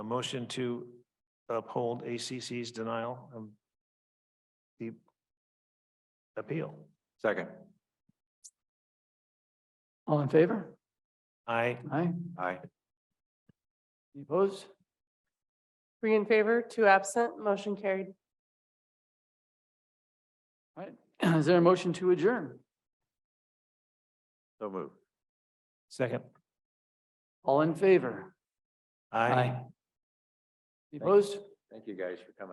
motion to uphold ACC's denial of the appeal. Second. All in favor? I, Aye. Aye. Any opposed? Three in favor, two absent, motion carried. All right. Is there a motion to adjourn? So move. second, All in favor? I. Any opposed? Thank you guys for coming.